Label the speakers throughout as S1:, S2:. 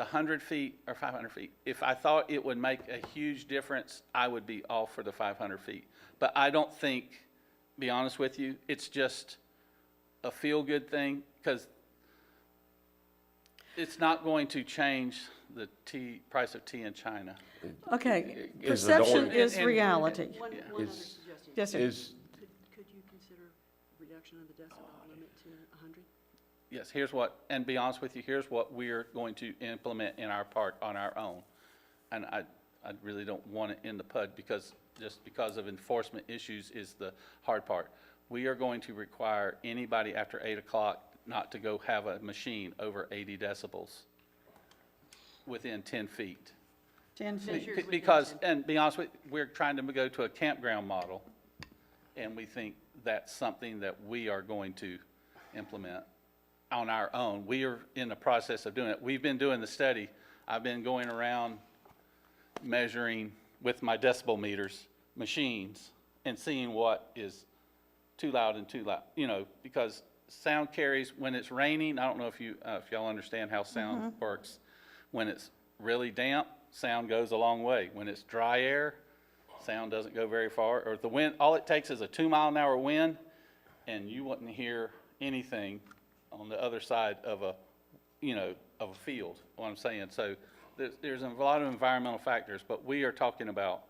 S1: the hundred feet or five hundred feet, if I thought it would make a huge difference, I would be all for the five hundred feet. But I don't think, be honest with you, it's just a feel-good thing, because it's not going to change the tea, price of tea in China.
S2: Okay,
S3: Is the
S2: perception
S3: door-
S2: is
S1: And- and-
S2: reality.
S4: One,
S1: Yeah.
S4: one other
S3: Is-
S4: suggestion.
S2: Yes, sir.
S3: Is,
S4: Could, could you consider reduction of the decibel limit to hundred?
S1: Yes, here's what, and be honest with you, here's what we're going to implement in our park on our own. And I, I really don't want it in the PUD because, just because of enforcement issues is the hard part. We are going to require anybody after eight o'clock not to go have a machine over eighty decibels within ten feet.
S2: 10 feet.
S1: Be- Because, and be honest with, we're trying to go to a campground model, and we think that's something that we are going to implement on our own. We are in the process of doing it. We've been doing the study. I've been going around measuring with my decibel meters, machines, and seeing what is too loud and too loud, you know, because sound carries, when it's raining, I don't know if you, uh, if y'all understand how sound works. When it's really damp, sound goes a long way. When it's dry air, sound doesn't go very far, or if the wind, all it takes is a two mile an hour wind, and you wouldn't hear anything on the other side of a, you know, of a field, what I'm saying. So there's, there's a lot of environmental factors, but we are talking about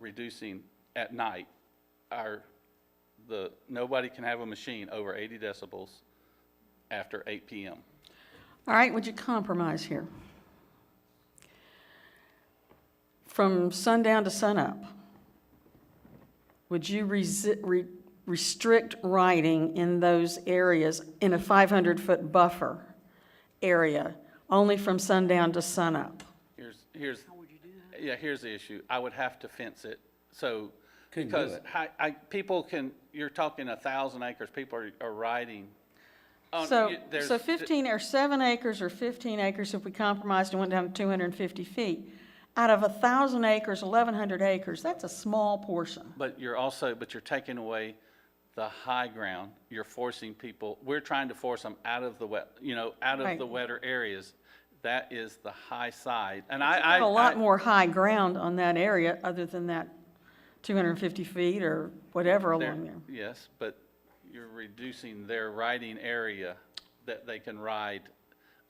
S1: reducing at night our, the, nobody can have a machine over 80 decibels after 8 PM.
S2: All right, would you compromise here? From sundown to sunup, would you resi- re- restrict riding in those areas in a 500-foot buffer area, only from sundown to sunup?
S1: Here's, here's. Yeah, here's the issue. I would have to fence it, so.
S3: Couldn't do
S1: Because
S3: it.
S1: I, I, people can, you're talking a thousand acres, people are, are riding. on-
S2: So,
S1: Oh, you- there's-
S2: so 15, or seven acres or 15 acres, if we compromised and went down to 250 feet, out of 1,000 acres, 1,100 acres, that's a small portion.
S1: But you're also, but you're taking away the high ground. You're forcing people, we're trying to force them out of the wet, you know, out of
S2: Right.
S1: the wetter areas. That is the high side, and I, I.
S2: A lot
S1: I-
S2: more high ground on that area, other than that 250 feet or whatever
S1: They're-
S2: along there.
S1: Yes, but you're reducing their riding area that they can ride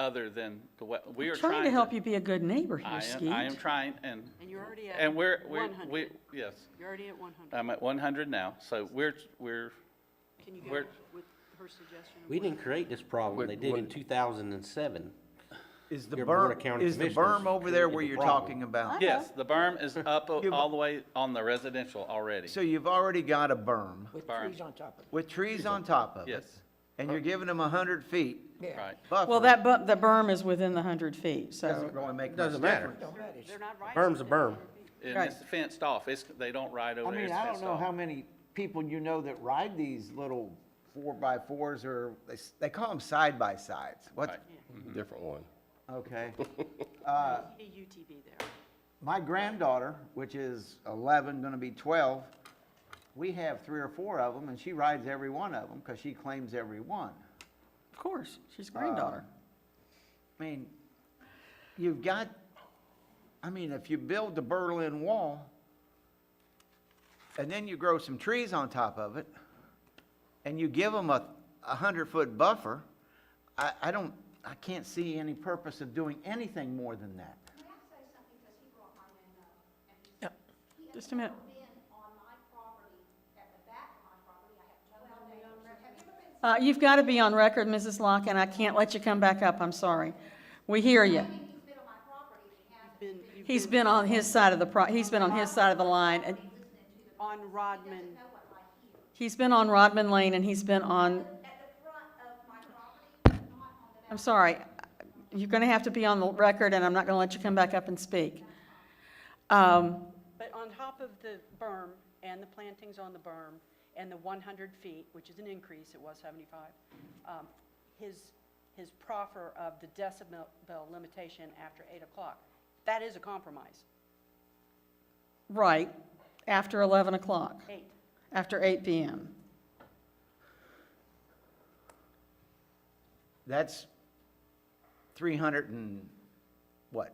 S1: other than the wet, we are trying to.
S2: Trying to help you be a good neighbor here,
S1: I am, I am
S2: Skeet.
S1: trying, and,
S4: And you're already at
S1: and we're, we're,
S4: 100.
S1: we, Uh, yes,
S4: You're already at one hundred.
S1: I'm at one hundred now, so we're, we're,
S4: Can you go
S1: we're-
S4: with her suggestion? of
S5: We
S4: what-
S5: didn't create this problem,
S3: What-
S5: they did in
S3: what-
S5: two thousand and seven.
S6: Is the
S5: Your Board of
S6: berm,
S5: County
S6: is the
S5: Commissioners
S6: berm over there where
S5: created the
S6: you're
S5: problem.
S6: talking about?
S1: yes, the berm is up
S6: You've-
S1: all the way on the residential already.
S6: So you've already got a berm
S7: With
S1: Berm.
S7: trees on top of it.
S6: with trees on top of it.
S1: Yes.
S6: And you're giving them a hundred feet
S7: Yeah.
S1: Right,
S6: buffer.
S2: Well, that bu, the berm is within the 100 feet, so,
S6: Doesn't really make much
S5: Doesn't matter,
S6: difference.
S7: Don't matter. It's-
S4: They're not right.
S5: berm's a berm.
S1: and
S2: Right.
S1: it's fenced off, it's, they don't ride
S6: I
S1: over there,
S6: mean,
S1: it's
S6: I don't
S1: fenced
S6: know how
S1: off.
S6: many people you know that ride these little four by fours or, they, s- they call them side by sides. What,
S1: Right.
S3: different one.
S6: okay.
S4: Need a UTV there.
S6: My granddaughter, which is eleven, gonna be twelve, we have three or four of them and she rides every one of them because she claims every one.
S2: of course, she's a granddaughter.
S6: I mean, you've got, I mean, if you build the Berlin Wall and then you grow some trees on top of it and you give them a, a hundred-foot buffer, I, I don't, I can't see any purpose of doing anything more than that.
S8: Can I say something, because he brought my name up, and he said, he has
S2: Just a minute.
S8: never been on my property, at the back of my property, I have no elevation. Have you ever been
S2: Uh, you've got to be on record, Mrs. Lock, and I can't let you come back up, I'm sorry. We hear you.
S8: saying he's been on my property, and he hasn't
S4: Been- you've
S2: He's been on his side of the pro, he's been on his side of the line, and
S4: On Rodman,
S8: know what I hear?
S2: he's been on Rodman Lane, and he's been on
S8: At the front of my property, not on the back.
S2: I'm sorry, you're going to have to be on the record, and I'm not going to let you come back up and speak. Um,
S4: but on top of the berm and the plantings on the berm and the one hundred feet, which is an increase, it was seventy-five, um, his, his proffer of the decibel limitation after eight o'clock, that is a compromise,
S2: Right, after 11 o'clock,
S4: eight.
S2: after 8 PM.
S6: That's three hundred and